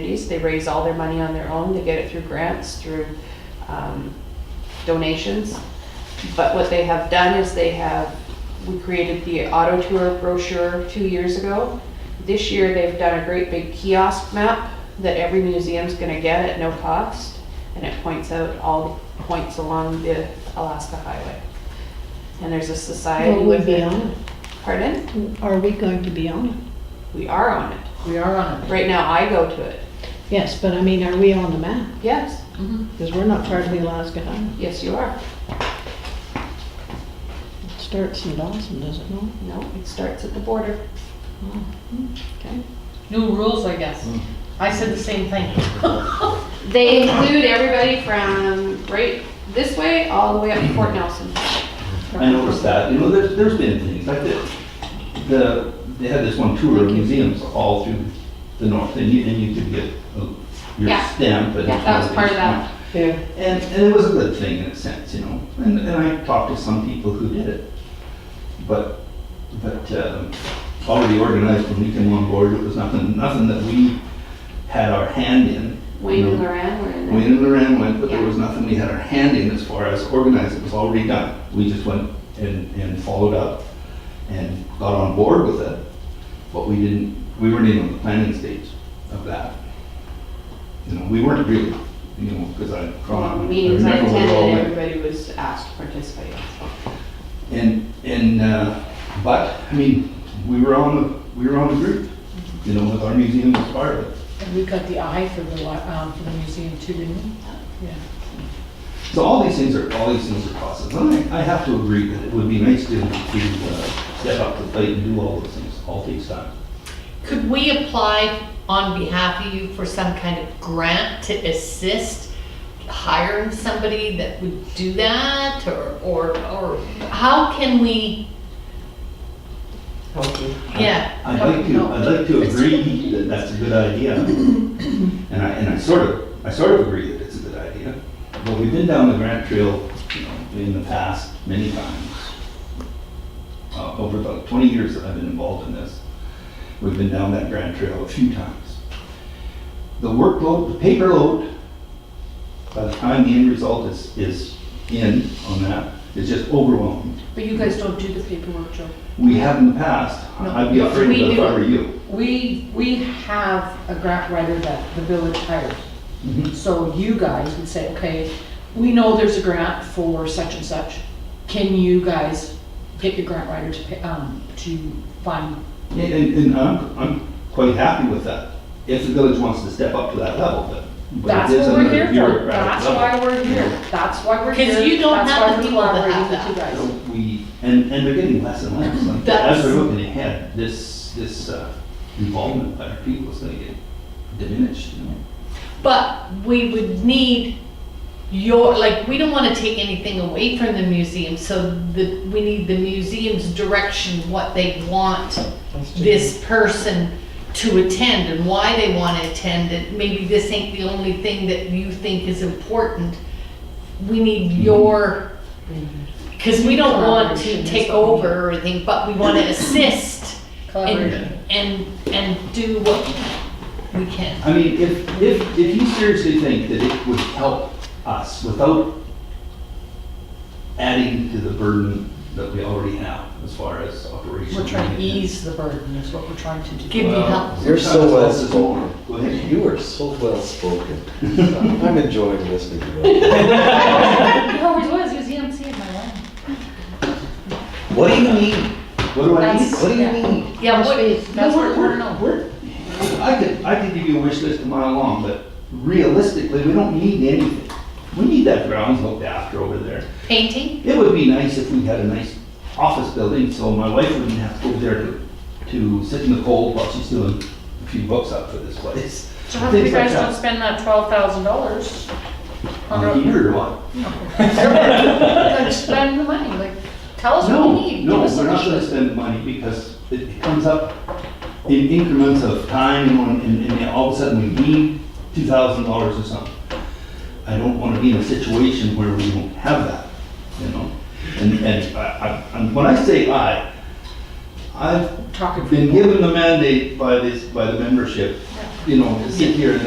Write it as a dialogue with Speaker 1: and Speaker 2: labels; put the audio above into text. Speaker 1: communities. They raise all their money on their own. They get it through grants, through um, donations. But what they have done is they have, we created the auto tour brochure two years ago. This year, they've done a great big kiosk map that every museum's gonna get at no cost. And it points out all the points along the Alaska Highway. And there's a society
Speaker 2: Will we
Speaker 1: with
Speaker 2: be
Speaker 1: it.
Speaker 2: on
Speaker 1: Pardon?
Speaker 2: it? Mm, Are we going to be on it?
Speaker 1: We are on it.
Speaker 3: We are on it.
Speaker 1: Right now, I go to it.
Speaker 2: Yes, but I mean, are we on the map?
Speaker 1: Yes,
Speaker 2: Because we're not part of the Alaska Highway.
Speaker 1: yes, you are.
Speaker 2: It starts in Dawson, does it not?
Speaker 1: No, it starts at the border.
Speaker 2: Okay.
Speaker 3: New rules, I guess.
Speaker 4: Hmm.
Speaker 3: I said the same thing.
Speaker 1: They include everybody from right this way all the way up to Fort Nelson.
Speaker 4: I noticed that, you know, there's, there's been things like this. The, they had this one tour of museums all through the north, and you, and you could get uh, your
Speaker 1: Yeah.
Speaker 4: stamp and.
Speaker 1: Yeah, that was part of that.
Speaker 2: Yeah.
Speaker 4: And, and it was a good thing in a sense, you know, and, and I talked to some people who did it. But, but, um, already organized when we came on board, it was nothing, nothing that we had our hand in.
Speaker 1: Wayne and
Speaker 4: No.
Speaker 1: Loran were in there.
Speaker 4: Wayne and Loran went, but there
Speaker 1: Yeah.
Speaker 4: was nothing we had our hand in as far as organizing, it was already done. We just went and, and followed up and got on board with it, but we didn't, we weren't even on the planning stage of that. You know, we weren't really, you know, because I.
Speaker 1: Well, Meetings I
Speaker 4: remember we all
Speaker 1: attended,
Speaker 4: went-
Speaker 1: everybody was asked to participate.
Speaker 4: And, and, uh, but, I mean, we were on, the we were on the group, you know, with our museum as part of it.
Speaker 3: And we got the eye for the, li- um, for the museum too, didn't we? Yeah.
Speaker 4: So all these things are, all these things are processes. And I, I have to agree that it would be nice to, to uh, step up to the plate and do all those things. All takes time.
Speaker 5: Could we apply on behalf of you for some kind of grant to assist hiring somebody that would do that, or, or, or how can we? Yeah.
Speaker 4: I'd like to, I'd like to agree that that's a good idea. And I, and I sort of, I sort of agree that it's a good idea. But we've been down the grant trail, you know, in the past many times. Uh, over the twenty years that I've been involved in this, we've been down that grant trail a few times. The workload, the paper load, by the time the end result is, is in on that, is just overwhelming.
Speaker 3: But you guys don't do the paperwork, Joe.
Speaker 4: We have in the past, I'd be
Speaker 3: No,
Speaker 4: afraid
Speaker 3: we
Speaker 4: of it if I
Speaker 3: do.
Speaker 4: were you.
Speaker 3: We, we have a grant writer that the village hires.
Speaker 4: Mhm.
Speaker 3: So you guys would say, okay, we know there's a grant for such and such. Can you guys get your grant writer to, pay- um, to find,
Speaker 4: Yeah, And, and I'm, I'm quite happy with that, if the village wants to step up to that level, but. but it
Speaker 3: that's
Speaker 4: is
Speaker 3: what we're
Speaker 4: another
Speaker 3: here for.
Speaker 4: bureaucratic
Speaker 3: That's
Speaker 4: level.
Speaker 3: why we're here. That's why we're here.
Speaker 5: 'Cause you don't
Speaker 3: That's
Speaker 5: have
Speaker 3: why
Speaker 5: the
Speaker 3: we
Speaker 5: people that
Speaker 3: collaborate
Speaker 5: have
Speaker 3: with you guys.
Speaker 4: So We, and, and they're getting less and less, like, as
Speaker 5: That's-
Speaker 4: we're looking ahead, this, this uh, involvement by our people is gonna get diminished, you know?
Speaker 5: But we would need your, like, we don't wanna take anything away from the museum, so the, we need the museum's direction, what they want this person to attend and why they wanna attend, and maybe this ain't the only thing that you think is important. We need
Speaker 3: Mm-hmm.
Speaker 5: your, cause we don't want
Speaker 3: Collaboration
Speaker 5: to
Speaker 3: is
Speaker 5: take
Speaker 3: what we need.
Speaker 5: over or anything, but we wanna assist
Speaker 3: Collaboration.
Speaker 5: and, and, and do what we can.
Speaker 4: I mean, if, if, if you seriously think that it would help us without adding to the burden that we already have as far as operations.
Speaker 3: We're trying to ease the burden is what we're trying to do.
Speaker 5: Give me help.
Speaker 6: You're so
Speaker 4: Sometimes
Speaker 6: well
Speaker 4: this is more.
Speaker 6: spoken.
Speaker 4: Go ahead.
Speaker 6: You are so well spoken. I'm enjoying listening to you.
Speaker 7: He always E was, he was the MC of my wedding.
Speaker 6: What do you need?
Speaker 4: What do I need?
Speaker 6: What do you need?
Speaker 5: Yeah, what,
Speaker 3: That's what we're,
Speaker 4: We're- I could, I could give you a wish list a mile long, but realistically, we don't need anything. We need that grounds looked after over there.
Speaker 5: painting?
Speaker 4: It would be nice if we had a nice office building, so my wife wouldn't have to go there to, to sit in the cold while she's doing a few books up for this place.
Speaker 3: So how come you
Speaker 4: Things like
Speaker 3: guys don't
Speaker 4: that.
Speaker 3: spend that twelve thousand dollars?
Speaker 4: On a heater or what?
Speaker 3: Like, spend the money, like, tell us what
Speaker 4: No,
Speaker 3: we need.
Speaker 4: no,
Speaker 3: Give us
Speaker 4: we're
Speaker 3: a
Speaker 4: not gonna
Speaker 3: list.
Speaker 4: spend money because it it comes up in increments of time and when- and, and all of a sudden we need two thousand dollars or something. I don't wanna be in a situation where we don't have that, you know? And, and I, I, and when I say I, I've
Speaker 3: Talking.
Speaker 4: been given the mandate by this, by the membership, you know, to sit here and